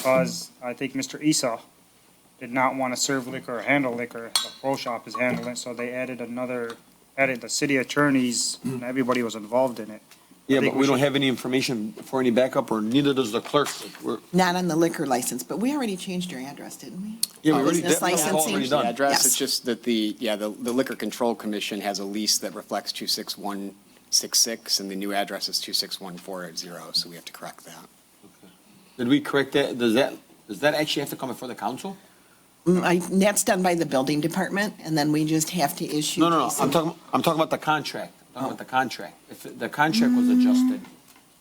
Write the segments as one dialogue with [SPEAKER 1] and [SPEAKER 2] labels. [SPEAKER 1] because I think Mr. Esau did not want to serve liquor or handle liquor. The pro shop is handling, it, so they added another, added the city attorneys, and everybody was involved in it.
[SPEAKER 2] Yeah,
[SPEAKER 1] think
[SPEAKER 2] but
[SPEAKER 1] we
[SPEAKER 2] we don't
[SPEAKER 1] should-
[SPEAKER 2] have any information for any backup, or neither does the clerk. We're-
[SPEAKER 3] Not on the liquor license, but we already changed your address, didn't we?
[SPEAKER 2] Yeah,
[SPEAKER 3] Oh,
[SPEAKER 2] we already,
[SPEAKER 3] business
[SPEAKER 2] that was all
[SPEAKER 3] licensing.
[SPEAKER 2] already
[SPEAKER 4] The
[SPEAKER 2] done.
[SPEAKER 4] address,
[SPEAKER 3] Yes.
[SPEAKER 4] it's just that the, yeah, the the Liquor Control Commission has a lease that reflects 26166, and the new address is 261480, so we have to correct that.
[SPEAKER 2] Did we correct that? Does that, does that actually have to come before the council?
[SPEAKER 3] Mm, I- That's done by the building department, and then we just have to issue.
[SPEAKER 2] No, no, no,
[SPEAKER 3] Jason-
[SPEAKER 2] I'm talking, I'm talking about the contract, I'm talking about the contract. If the contract was adjusted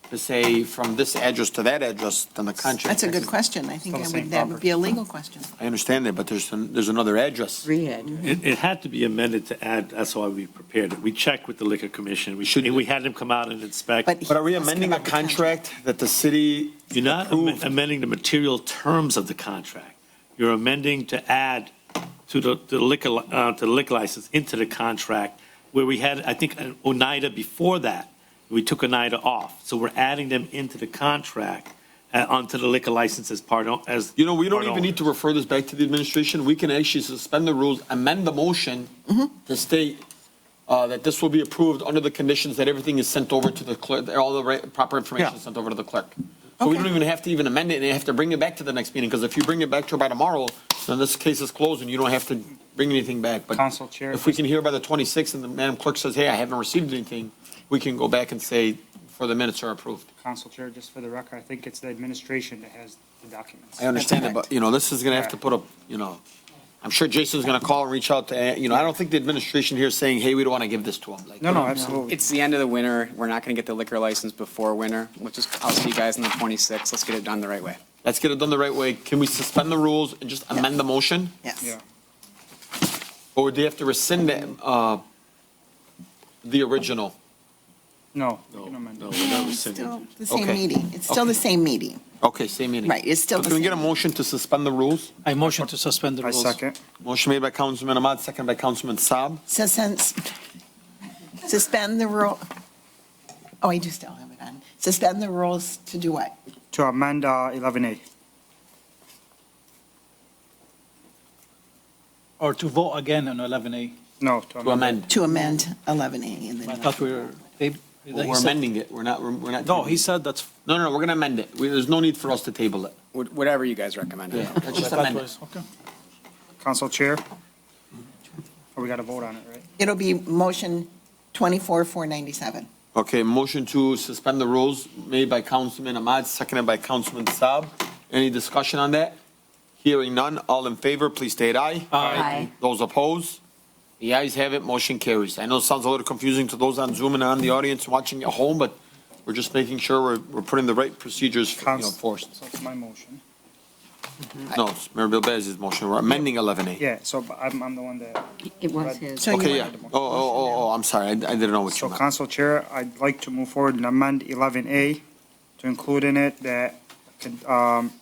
[SPEAKER 2] to say from this address to that address, then the contract.
[SPEAKER 3] That's a good question. I think
[SPEAKER 1] Still the
[SPEAKER 3] that
[SPEAKER 1] same
[SPEAKER 3] would- that would
[SPEAKER 1] property.
[SPEAKER 3] be a legal question.
[SPEAKER 2] I understand that, but there's, an- there's another address.
[SPEAKER 5] It, it had to be amended to add, that's why we prepared it. We checked with the liquor commission. We should, we had them come out and inspect.
[SPEAKER 3] But-
[SPEAKER 2] But are we
[SPEAKER 3] Asking
[SPEAKER 2] amending a
[SPEAKER 3] about the contract.
[SPEAKER 2] contract that the city
[SPEAKER 5] You're not am-
[SPEAKER 2] approved?
[SPEAKER 5] amending the material terms of the contract. You're amending to add to the to the liquor, li- uh, to the liquor license into the contract where we had, I think, an Oneida before that. We took Oneida off. So we're adding them into the contract, uh, onto the liquor license as part, o- as.
[SPEAKER 2] You know, we don't
[SPEAKER 5] part
[SPEAKER 2] even need to
[SPEAKER 5] owners.
[SPEAKER 2] refer this back to the administration. We can actually suspend the rules, amend the motion to state uh, that this will be approved under the conditions that everything is sent over to the clerk, that all the right- proper information is sent over to the clerk. So we
[SPEAKER 3] Okay.
[SPEAKER 2] don't even have to even amend it, and they have to bring it back to the next meeting, because if you bring it back to by tomorrow, then this case is closed, and you don't have to bring anything back. But
[SPEAKER 1] Council Chair.
[SPEAKER 2] If we can hear by the 26th, and the Madam Clerk says, hey, I haven't received anything, we can go back and say, for the minutes are approved.
[SPEAKER 1] Council Chair, just for the record, I think it's the administration that has the documents.
[SPEAKER 2] I understand that, but, you know, this is gonna have to put up, you know, I'm sure Jason's gonna call and reach out to, uh, you know, I don't think the administration here is saying, hey, we don't wanna give this to them. Like,
[SPEAKER 1] No, no, absolutely.
[SPEAKER 4] It's the end of the winter, we're not going to get the liquor license before winter, we'll just, I'll see you guys on the 26th, let's get it done the right way.
[SPEAKER 2] Let's get it done the right way. Can we suspend the rules and just amend the motion?
[SPEAKER 3] Yes.
[SPEAKER 1] Yeah.
[SPEAKER 2] Or do you have to rescind that, uh, the original?
[SPEAKER 1] No.
[SPEAKER 5] No,
[SPEAKER 1] you can amend it.
[SPEAKER 5] no, we're not rescinding.
[SPEAKER 3] Still the same
[SPEAKER 2] Okay.
[SPEAKER 3] meeting. It's still the same meeting.
[SPEAKER 2] Okay, same meeting.
[SPEAKER 3] Right, it's still
[SPEAKER 2] So
[SPEAKER 3] the
[SPEAKER 2] Can we get a
[SPEAKER 3] same.
[SPEAKER 2] motion to suspend the rules?
[SPEAKER 6] I motion to suspend the
[SPEAKER 1] I
[SPEAKER 6] rules.
[SPEAKER 1] second.
[SPEAKER 2] Motion made by Councilman Ahmad, second by Councilman Saab.
[SPEAKER 3] So since, suspend the rule, oh, I do still have it on. Suspend the rules to do what?
[SPEAKER 1] To amend uh, 11A.
[SPEAKER 6] Or to vote again on 11A.
[SPEAKER 1] No, to
[SPEAKER 2] To
[SPEAKER 1] amend.
[SPEAKER 2] amend.
[SPEAKER 3] To amend 11A and then.
[SPEAKER 6] I thought we were, they.
[SPEAKER 2] Well,
[SPEAKER 6] he
[SPEAKER 2] We're
[SPEAKER 6] said-
[SPEAKER 2] amending it. We're not, we're we're not.
[SPEAKER 6] No, he said that's.
[SPEAKER 2] No, no, no, we're gonna amend it. We- There's no need for us to table it.
[SPEAKER 4] Wh- Whatever you guys recommend.
[SPEAKER 2] Yeah, let's just
[SPEAKER 6] that
[SPEAKER 2] amend it.
[SPEAKER 6] was- Okay.
[SPEAKER 1] Council Chair? Oh, we got to vote on it, right?
[SPEAKER 3] It'll be motion 24,497.
[SPEAKER 2] Okay, motion to suspend the rules made by Councilman Ahmad, seconded by Councilman Saab. Any discussion on that? Hearing none, all in favor, please state aye.
[SPEAKER 7] Aye.
[SPEAKER 2] Those opposed? The ayes have it, motion carries. I know it sounds a little confusing to those on Zoom and on the audience watching at home, but we're just making sure we're, we're putting the right procedures you know,
[SPEAKER 1] Council-
[SPEAKER 2] forced.
[SPEAKER 1] So it's my motion.
[SPEAKER 2] No, it's Mayor Bilbez's motion, we're amending 11A.
[SPEAKER 1] Yeah, so but I'm, I'm the one that,
[SPEAKER 7] It was his.
[SPEAKER 3] So you
[SPEAKER 2] Okay,
[SPEAKER 3] want-
[SPEAKER 2] yeah. Oh, oh, oh, oh, I'm sorry, I I didn't know what you
[SPEAKER 1] so
[SPEAKER 2] meant.
[SPEAKER 1] Council Chair, I'd like to move forward and amend 11A to include in it that con- um,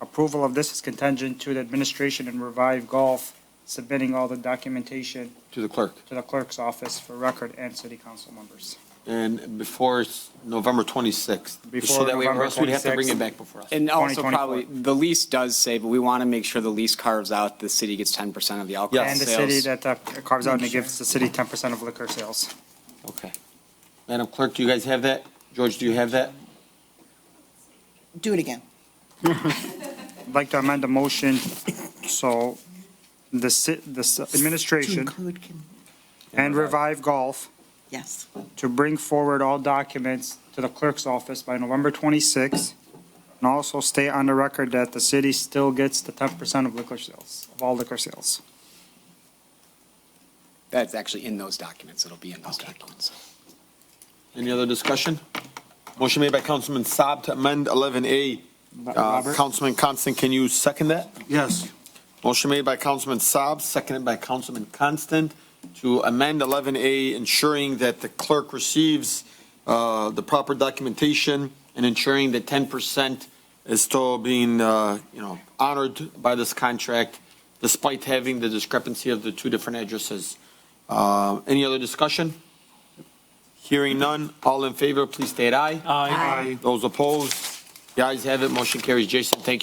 [SPEAKER 1] approval of this is contingent to the administration and Revive Golf submitting all the documentation
[SPEAKER 2] To the clerk.
[SPEAKER 1] to the clerk's office for record and city council members.
[SPEAKER 2] And before s- November 26th.
[SPEAKER 1] Before
[SPEAKER 2] So that way, or
[SPEAKER 1] November
[SPEAKER 2] else we'd have to bring
[SPEAKER 1] 26th.
[SPEAKER 2] it back before us.
[SPEAKER 4] And also
[SPEAKER 1] 2024.
[SPEAKER 4] probably, the lease does say, but we want to make sure the lease carves out, the city gets 10% of the alcohol
[SPEAKER 1] And the city
[SPEAKER 4] sales.
[SPEAKER 1] that uh, carves out and gives the city 10% of liquor sales.
[SPEAKER 2] Okay. Madam Clerk, do you guys have that? George, do you have that?
[SPEAKER 3] Do it again.
[SPEAKER 1] I'd like to amend the motion, so the ci, the s-
[SPEAKER 3] To
[SPEAKER 1] administration
[SPEAKER 3] include con-
[SPEAKER 1] and Revive Golf
[SPEAKER 3] Yes.
[SPEAKER 1] to bring forward all documents to the clerk's office by November 26th, and also state on the record that the city still gets the 10% of liquor sales, of all liquor sales.
[SPEAKER 4] That's actually in those documents, it'll be in those documents.
[SPEAKER 2] Any other discussion? Motion made by Councilman Saab to amend 11A. Uh,
[SPEAKER 1] Robert?
[SPEAKER 2] Councilman Constant, can you second that?
[SPEAKER 8] Yes,
[SPEAKER 2] Motion made by Councilman Saab, seconded by Councilman Constant to amend 11A, ensuring that the clerk receives uh, the proper documentation and ensuring that 10% is still being, uh, you know, honored by this contract despite having the discrepancy of the two different addresses. Uh, Any other discussion? Hearing none, all in favor, please state aye.
[SPEAKER 6] Aye.
[SPEAKER 8] Aye.
[SPEAKER 2] Those opposed, The ayes have it, motion carries. Jason, thank you.